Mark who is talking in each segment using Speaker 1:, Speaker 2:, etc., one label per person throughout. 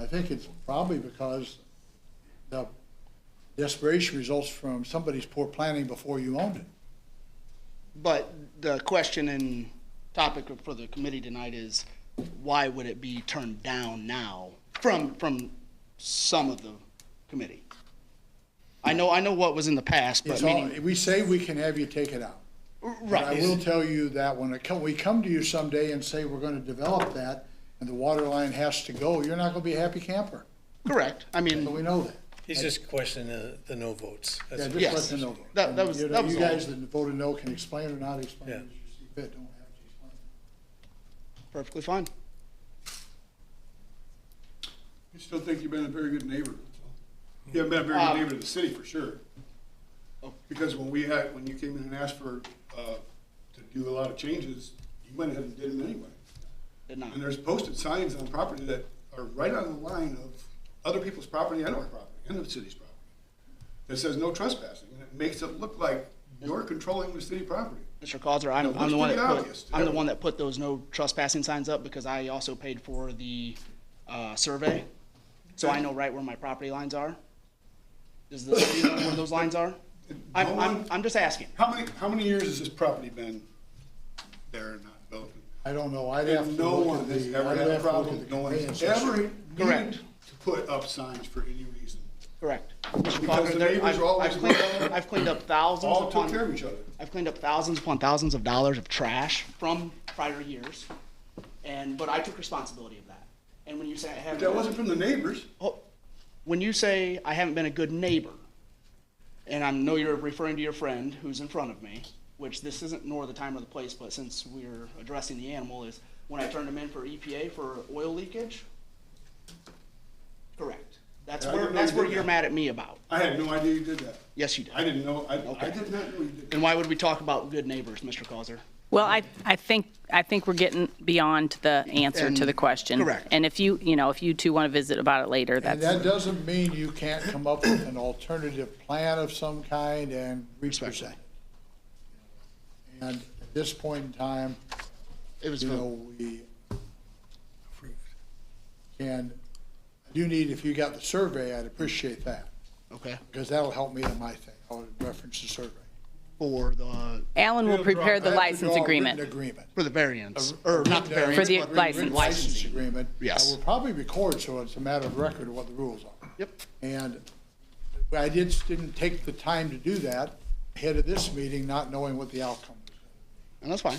Speaker 1: think it's probably because the desperation results from somebody's poor planning before you owned it.
Speaker 2: But the question and topic for the committee tonight is, why would it be turned down now from, from some of the committee? I know, I know what was in the past, but
Speaker 1: It's all,
Speaker 2: meaning,
Speaker 1: we say we can have you take it out. But I will
Speaker 2: right,
Speaker 1: tell you that when it come, we come to you someday and say we're gonna develop that, and the water line has to go, you're not gonna be a happy camper,
Speaker 2: correct. I
Speaker 1: so
Speaker 2: mean,
Speaker 1: we know that.
Speaker 3: He's just questioning the, the no votes.
Speaker 1: Yeah,
Speaker 3: That's-
Speaker 1: just let
Speaker 2: Yes.
Speaker 1: them know.
Speaker 2: That- that was-
Speaker 1: You know,
Speaker 2: that was
Speaker 1: You
Speaker 2: all.
Speaker 1: guys that voted no can explain or not explain
Speaker 3: Yeah.
Speaker 1: as you see fit, don't have to explain.
Speaker 2: perfectly fine.
Speaker 4: We still think you've been a very good neighbor. You haven't been a very
Speaker 2: Um,
Speaker 4: good neighbor to the city, for sure. Because when we had, when you came in and asked for, uh, to do a lot of changes, you went ahead and did them anyway.
Speaker 2: Did not.
Speaker 4: And there's posted signs on property that are right on the line of other people's property and our property, and the city's property. That says no trespassing, and it makes it look like you're controlling the city property.
Speaker 2: Mr. Causer, I'm,
Speaker 4: No,
Speaker 2: I'm
Speaker 4: it's
Speaker 2: the one that
Speaker 4: pretty
Speaker 2: put,
Speaker 4: obvious to
Speaker 2: I'm the
Speaker 4: everyone.
Speaker 2: one that put those no trespassing signs up because I also paid for the, uh, survey. So I know right where my property lines are. Does the city know where those lines are?
Speaker 4: No
Speaker 2: I'm, I'm,
Speaker 4: one-
Speaker 2: I'm just asking.
Speaker 4: How many, how many years has this property been there and not built?
Speaker 1: I don't know, I'd have to
Speaker 4: And no
Speaker 1: look
Speaker 4: one
Speaker 1: at
Speaker 4: has
Speaker 1: the,
Speaker 4: ever
Speaker 1: I'd
Speaker 4: had a
Speaker 1: have to look
Speaker 4: problem,
Speaker 1: at the
Speaker 4: no one
Speaker 1: conveyance.
Speaker 4: has ever
Speaker 2: Correct.
Speaker 4: needed to put up signs for any reason.
Speaker 2: Correct. Mr.
Speaker 4: Because
Speaker 2: Clocker,
Speaker 4: the
Speaker 2: there-
Speaker 4: neighbors
Speaker 2: I've-
Speaker 4: are always
Speaker 2: I've cleaned
Speaker 4: looking.
Speaker 2: up- I've cleaned up thousands
Speaker 4: All took
Speaker 2: upon,
Speaker 4: care of each other.
Speaker 2: I've cleaned up thousands upon thousands of dollars of trash from prior years. And, but I took responsibility of that. And when you say I haven't.
Speaker 4: But that wasn't from the neighbors.
Speaker 2: Oh, When you say I haven't been a good neighbor, and I know you're referring to your friend who's in front of me, which this isn't nor the time or the place, but since we're addressing the animal, is when I turned him in for EPA for oil leakage? Correct. That's
Speaker 4: Yeah, I
Speaker 2: where,
Speaker 4: didn't know
Speaker 2: that's
Speaker 4: you
Speaker 2: where
Speaker 4: did
Speaker 2: you're
Speaker 4: that.
Speaker 2: mad at me about.
Speaker 4: I had no idea you did that.
Speaker 2: Yes, you did.
Speaker 4: I didn't know, I, I
Speaker 2: Okay.
Speaker 4: did not know you did that.
Speaker 2: And why would we talk about good neighbors, Mr. Causer?
Speaker 5: Well, I, I think, I think we're getting beyond the answer to the question.
Speaker 2: Correct.
Speaker 5: And if you, you know, if you two want to visit about it later,
Speaker 1: And
Speaker 5: that's,
Speaker 1: that doesn't mean you can't come up with an alternative plan of some kind and represent. it. And at this point in time,
Speaker 2: It was,
Speaker 1: you know, we can, I do need, if you got the survey, I'd appreciate that,
Speaker 2: okay,
Speaker 1: because that'll help me in my thing. I would reference the survey.
Speaker 2: for the,
Speaker 5: Alan will prepare the
Speaker 1: I have to
Speaker 5: license
Speaker 1: draw a
Speaker 5: agreement.
Speaker 1: written agreement.
Speaker 2: for the variance, or not the
Speaker 1: No,
Speaker 2: variance.
Speaker 5: the
Speaker 2: but
Speaker 1: written
Speaker 5: license.
Speaker 1: License
Speaker 2: Licensing.
Speaker 1: agreement.
Speaker 2: Yes.
Speaker 1: I will probably record, so it's a matter of record of what the rules are.
Speaker 2: Yep.
Speaker 1: And I did, didn't take the time to do that ahead of this meeting, not knowing what the outcome was.
Speaker 2: And that's fine.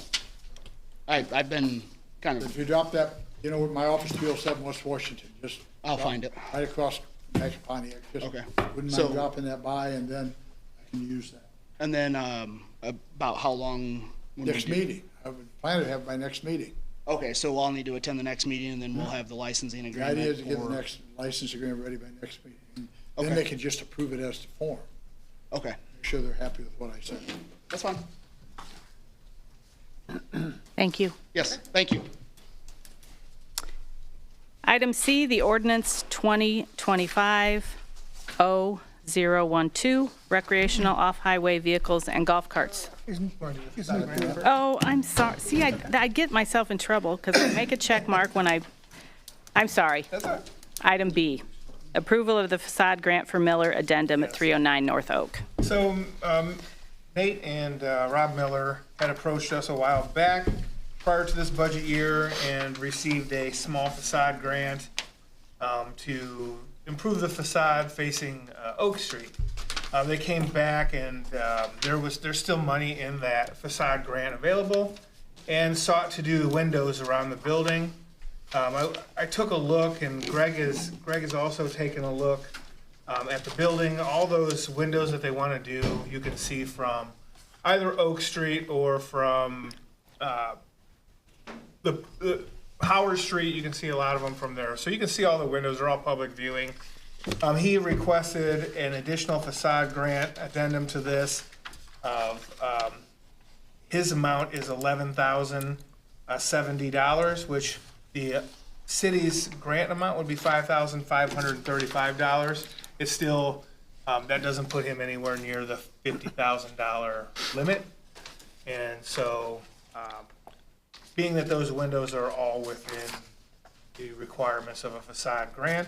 Speaker 2: I, I've been kind of
Speaker 1: If you drop that, you know, my office, 207 West Washington, just.
Speaker 2: I'll
Speaker 1: drop
Speaker 2: find it.
Speaker 1: Right across from Mac Pontiac. Just
Speaker 2: Okay.
Speaker 1: Wouldn't
Speaker 2: So-
Speaker 1: mind dropping that by, and then I can use that.
Speaker 2: And then um, about how long? when we
Speaker 1: Next
Speaker 2: do-
Speaker 1: meeting, I would plan to have my next meeting.
Speaker 2: Okay, so I'll need to attend the next meeting, and then we'll have the licensing
Speaker 1: The
Speaker 2: agreement.
Speaker 1: idea is to get the
Speaker 2: for-
Speaker 1: next license agreement ready by next meeting. Then they
Speaker 2: Okay.
Speaker 1: can just approve it as the form.
Speaker 2: Okay,
Speaker 1: Make sure they're happy with what I said.
Speaker 2: that's fine.
Speaker 5: Thank you.
Speaker 2: Yes, thank you.
Speaker 5: Item C, the ordinance 2025-0012, recreational off-highway vehicles and golf carts. Oh, I'm sorry. See, I, I get myself in trouble because I make a check mark when I, I'm sorry. Item B, approval of the facade grant for Miller Addendum at 309 North Oak.
Speaker 6: So um, Nate and uh, Rob Miller had approached us a while back prior to this budget year and received a small facade grant um, to improve the facade facing uh, Oak Street. Uh, They came back and um, there was, there's still money in that facade grant available and sought to do the windows around the building. Um, I, I took a look and Greg is, Greg has also taken a look um, at the building. All those windows that they want to do, you can see from either Oak Street or from uh, the, the Howard Street. You can see a lot of them from there. So you can see all the windows. They're all public viewing. Um, he requested an additional facade grant addendum to this of um, his amount is eleven thousand uh, seventy dollars, which the city's grant amount would be five thousand five hundred and thirty-five dollars. It's still, um, that doesn't put him anywhere near the fifty thousand dollar limit. And so, um, being that those windows are all within the requirements of a facade grant,